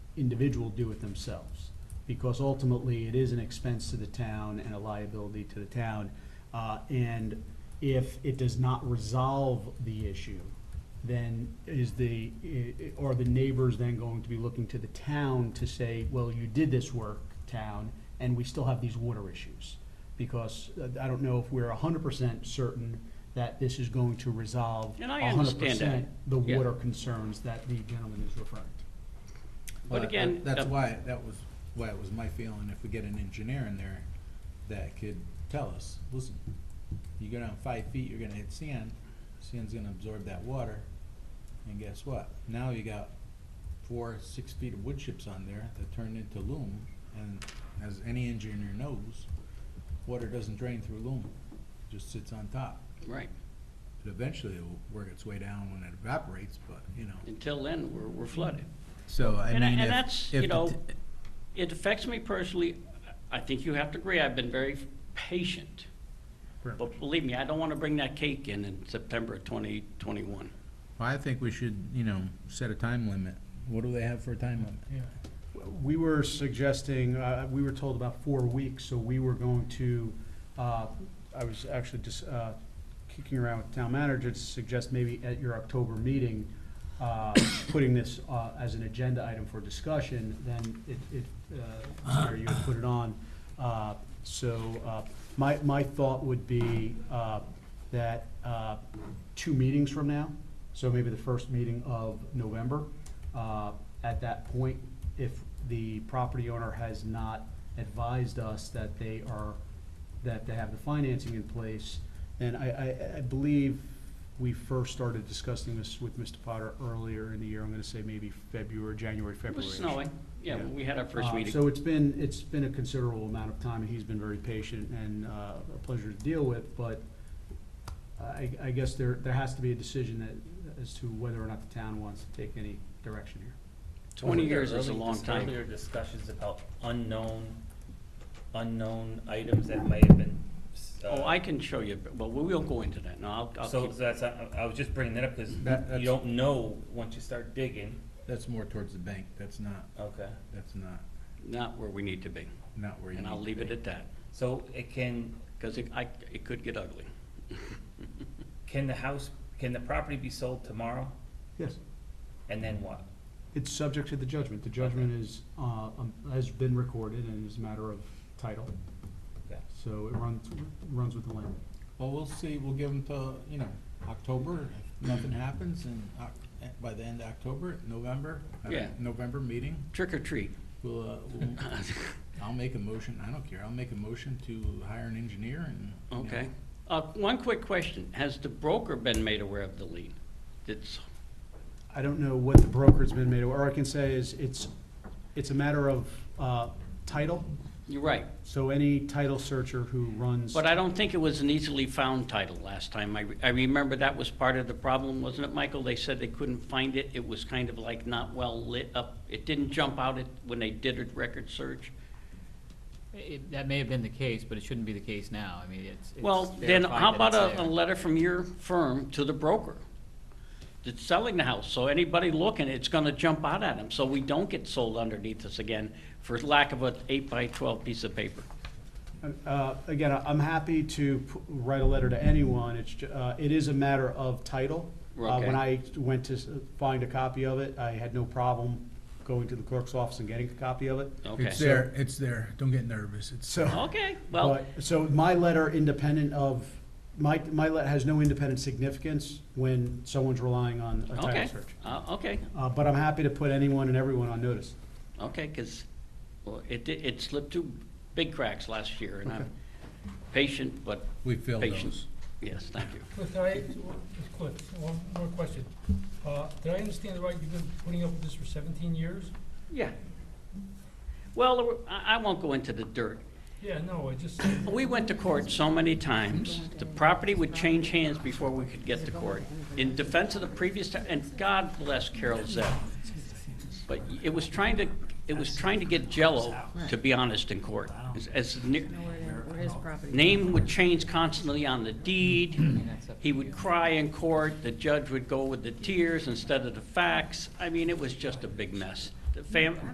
individual do it themselves. Because ultimately, it is an expense to the town and a liability to the town. Uh, and if it does not resolve the issue, then is the, i- i- are the neighbors then going to be looking to the town to say, well, you did this work, town, and we still have these water issues? Because uh, I don't know if we're hundred percent certain that this is going to resolve And I hundred understand that. percent the Yeah. water concerns that the gentleman is referring to. But that- again, That's uh, why, that was, why it was my feeling, if we get an engineer in there that could tell us, listen, you go down five feet, you're gonna hit sand, sand's gonna absorb that water, and guess what? Now you got four, six feet of wood chips on there that turned into loam, and as any engineer knows, water doesn't drain through loam, it just sits on top. Right. But Eventually, it'll work its way down when it evaporates, but, you know, Until then, we're, we're flooded. so I And I- mean, and if, that's, if you the know, t- it affects me personally. I think you have to agree, I've been very patient. But believe me, I don't want to bring that cake in in September of 2021. Well, I think we should, you know, set a time limit. What do they have for a time limit? We were suggesting, uh, we were told about four weeks, so we were going to, uh, I was actually just uh, kicking around with town manager to suggest maybe at your October meeting, uh, putting this uh, as an agenda item for discussion, then it, it, uh, Mary, you would put it on. Uh, So uh, my, my thought would be uh, that uh, two meetings from now, so maybe the first meeting of November, uh, at that point, if the property owner has not advised us that they are, that they have the financing in place, then I, I, I believe we first started discussing this with Mr. Potter earlier in the year, I'm gonna say maybe February, January, It February. was snowing, yeah, when we had our first Uh, meeting. So it's been, it's been a considerable amount of time, and he's been very patient and uh, a pleasure to deal with, but I, I guess there, there has to be a decision that, as to whether or not the town wants to take any direction here. 20 Wasn't there years is a early long dis- time. Earlier discussions about unknown, unknown items that might have been. s- Oh, uh, I can show you, but we will go into that. No, I'll, I'll So, keep, so that's, I, I was just bringing that up because That- that's- you don't know once you start digging. That's more towards the bank. That's not, Okay. that's not, not where we need to be, not where you. and I'll need leave to it at that, So it can, because it, I, it could get ugly. can the house, can the property be sold tomorrow? Yes. And then what? It's subject to the judgment. The judgment is, uh, um, has been recorded and is a matter of title, Okay. so it runs, runs with the land. be. Well, we'll see. We'll give them till, you know, October. If nothing happens and by the end of October, November, uh, Yeah. November meeting, Trick or treat. we'll, uh, we'll, I'll make a motion. I don't care. I'll make a motion to hire an engineer and. you know, Okay. Uh, one quick question. Has the broker been made aware of the lien? It's, I don't know what the broker's been made, or I can say is, it's, it's a matter of uh, title, you're right. so any title searcher who runs. But I don't think it was an easily found title last time. I, re- I remember that was part of the problem, wasn't it, Michael? They said they couldn't find it. It was kind of like not well lit up. It didn't jump out at, when they did a record search. It, that may have been the case, but it shouldn't be the case now. I mean, it's. it's Well, then verified how that about it's a, a there. letter from your firm to the broker that's selling the house? So anybody looking, it's gonna jump out at them, so we don't get sold underneath us again for lack of an eight by twelve piece of paper. Uh, Again, I- I'm happy to p- write a letter to anyone. It's, ju- uh, it is a matter of title. Uh, Okay. When I went to s- find a copy of it, I had no problem going to the clerk's office and getting a copy of it. Okay, It's there. It's there. Don't get nervous. It's. So. okay, well, But- So my letter independent of, my, my letter has no independent significance when someone's relying on a title okay, search. uh, okay, Uh, But I'm happy to put anyone and everyone on notice. okay, cause, well, it, di- it slipped through big cracks last year, and I'm patient, but We filled patient. those. Yes, thank you. Cliff, can I, Mr. Cliff, one more question. Uh, Did I understand right, you've been putting up with this for 17 years? Yeah. Well, there were- I, I won't go into the dirt. Yeah, no, I just, We went to court so many times, the property would change hands before we could get to court. In defense of the previous, ti- and God bless Carol Zepp. But it was trying to, it was trying to get jello, to be honest, in court. As- As, ne- Where his property? name would change constantly on the deed, that's up he to would you. cry in court, the judge would go with the tears instead of the facts. I mean, it was just a big mess. The fam,